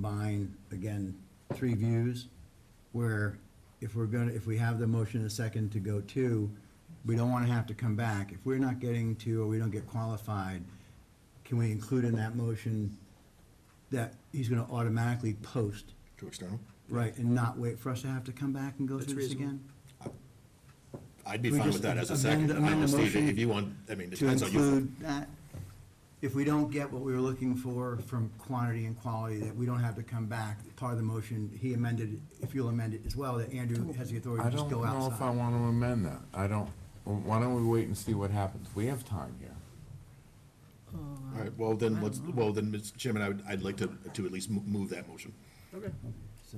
combine, again, three views, where if we're gonna, if we have the motion a second to go to, we don't wanna have to come back. If we're not getting to, or we don't get qualified, can we include in that motion that he's gonna automatically post, To external? right, and not wait for us to have to come back and go That's through this reasonable. again? I'd be We fine just with that as a amend- second. I amend the understand motion if you want, I mean, it to depends on you. include that, if we don't get what we were looking for from quantity and quality, that we don't have to come back, part of the motion, he amended, if you'll amend it as well, that Andrew has the authority I to just don't go know if I outside. want to amend that. I don't, well, why don't we wait and see what happens? We have time here. All right, well, then, let's, well, then, Mr. Chairman, I would, I'd like to, to at least mo- move that motion. Okay. So,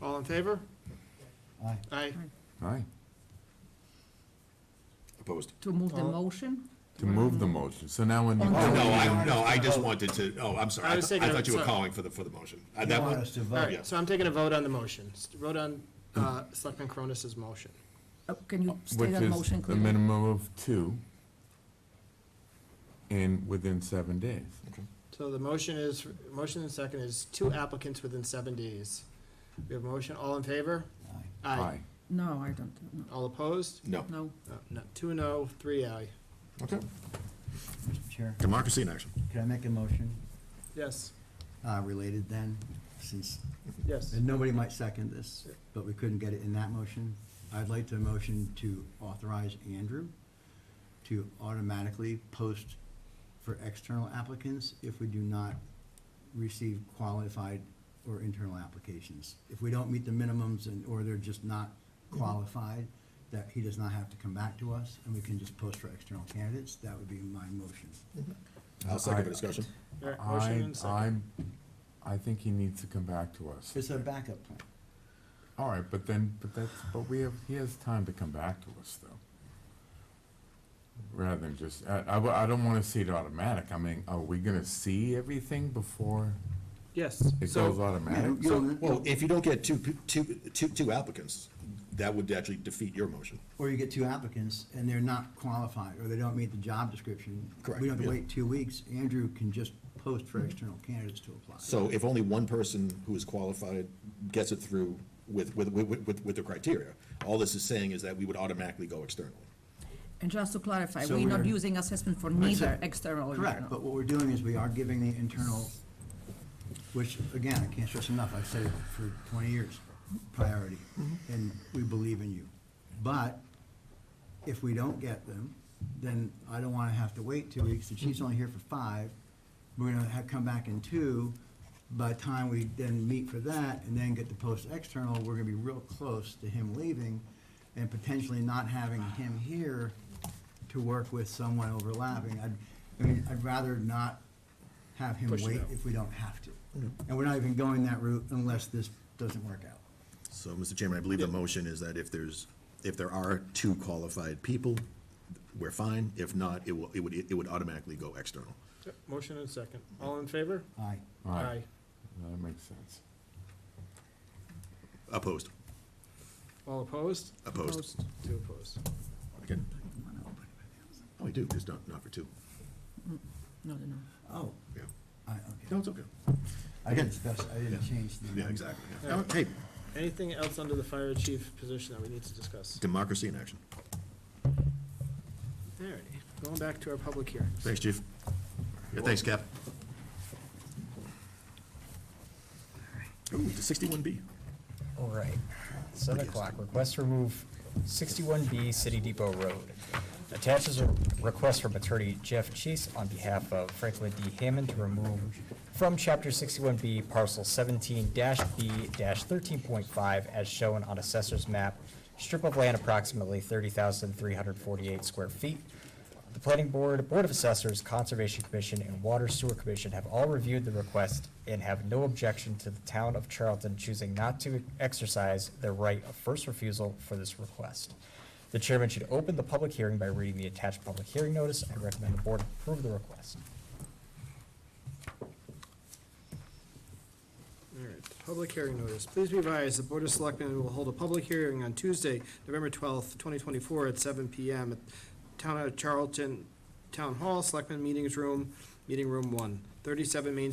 All in favor? aye. Aye. Aye. Opposed? To move the Oh. motion? To move the motion. So now when you Oh, No, do, I, no, I just wanted to, oh, I'm sorry. I I was thought I thinking of- thought you were sorry. calling for the, for the motion. I- You that want one- us to All vote? right, so I'm taking a vote on the motion. S- Vote on uh, Selectman Cronus's motion. Uh, Can you state which that is motion the clearly? minimum of two and within seven days. So the motion is, motion and second is two applicants within seven days. We have a motion, all in favor? Aye. Aye. No, I don't, no, All opposed? No. no. No, No, two no, three aye. Okay. Mr. Chair, Democracy in action. can I make a motion, Yes, uh, related then, since, yes. and nobody might second this, but we couldn't get it in that motion? I'd like to motion to authorize Andrew to automatically post for external applicants if we do not receive qualified or internal applications. If we don't meet the minimums and, or they're just not qualified, that he does not have to come back to us and we can just post for external candidates, that would be my motion. I'll second the discussion. All right, Motion I, and second. I'm, I think he needs to come back to us. It's a backup plan. All right, but then, but that's, but we have, he has time to come back to us though. Rather than just, I, I, w- I don't wanna see it automatic. I mean, are we gonna see everything before Yes, it goes so, automatic? You'll- Well, if you don't get two, pe- two, two, two applicants, that would actually defeat your motion. Or you get two applicants and they're not qualified, or they don't meet the job description. Correct, We don't have to yeah. wait two weeks. Andrew can just post for external candidates to apply. So if only one person who is qualified gets it through with, with, with, with, with the criteria, all this is saying is that we would automatically go externally. And just to clarify, So we're not we're- using assessment for neither said- external or Correct, internal. but what we're doing is we are giving the internal, which, again, I can't stress enough, I've said it for twenty years, priority, Mm-hmm. and we believe in you. But if we don't get them, then I don't wanna have to wait two weeks, the chief's only here for five, we're gonna have, come back in two, by the time we then meet for that, and then get the post external, we're gonna be real close to him leaving, and potentially not having him here to work with someone overlapping. I'd, I mean, I'd rather not have him Push it wait out. if we don't have to. And we're not even going that route unless this doesn't work out. So, Mr. Chairman, I believe the motion is that if there's, if there are two qualified people, we're fine. If not, it will, it would, it would automatically go external. motion and second. All in favor? Aye. All right, That makes sense. Opposed. All opposed? Opposed. Two opposed. Okay. Oh, we do, just not, not for two. No, no, no. Oh, Yeah. I, okay. No, it's okay. I didn't discuss, I didn't change the. Yeah, exactly. yeah. No, Hey, Anything else under the fire chief position that we need to discuss? democracy in action. All right, going back to our public hearings. Thanks, chief. Yeah, thanks, Cap. Ooh, the sixty-one B. All right, seven o'clock, request to remove sixty-one B City Depot Road. Attaches a request from attorney Jeff Chase on behalf of Franklin D. Hammond to remove from chapter sixty-one B parcel seventeen B thirteen point five as shown on assessor's map, strip of land approximately thirty thousand three hundred forty-eight square feet. The planning board, board of assessors, conservation commission, and water sewer commission have all reviewed the request and have no objection to the town of Charlton choosing not to exercise their right of first refusal for this request. The chairman should open the public hearing by reading the attached public hearing notice. I recommend the board approve the request. All right, public hearing notice. Please be advised, the Board of Selectmen will hold a public hearing on Tuesday, November twelfth, twenty twenty-four, at seven PM at Town of Charlton Town Hall, Selectmen Meetings Room, Meeting Room One, 37 Main Street.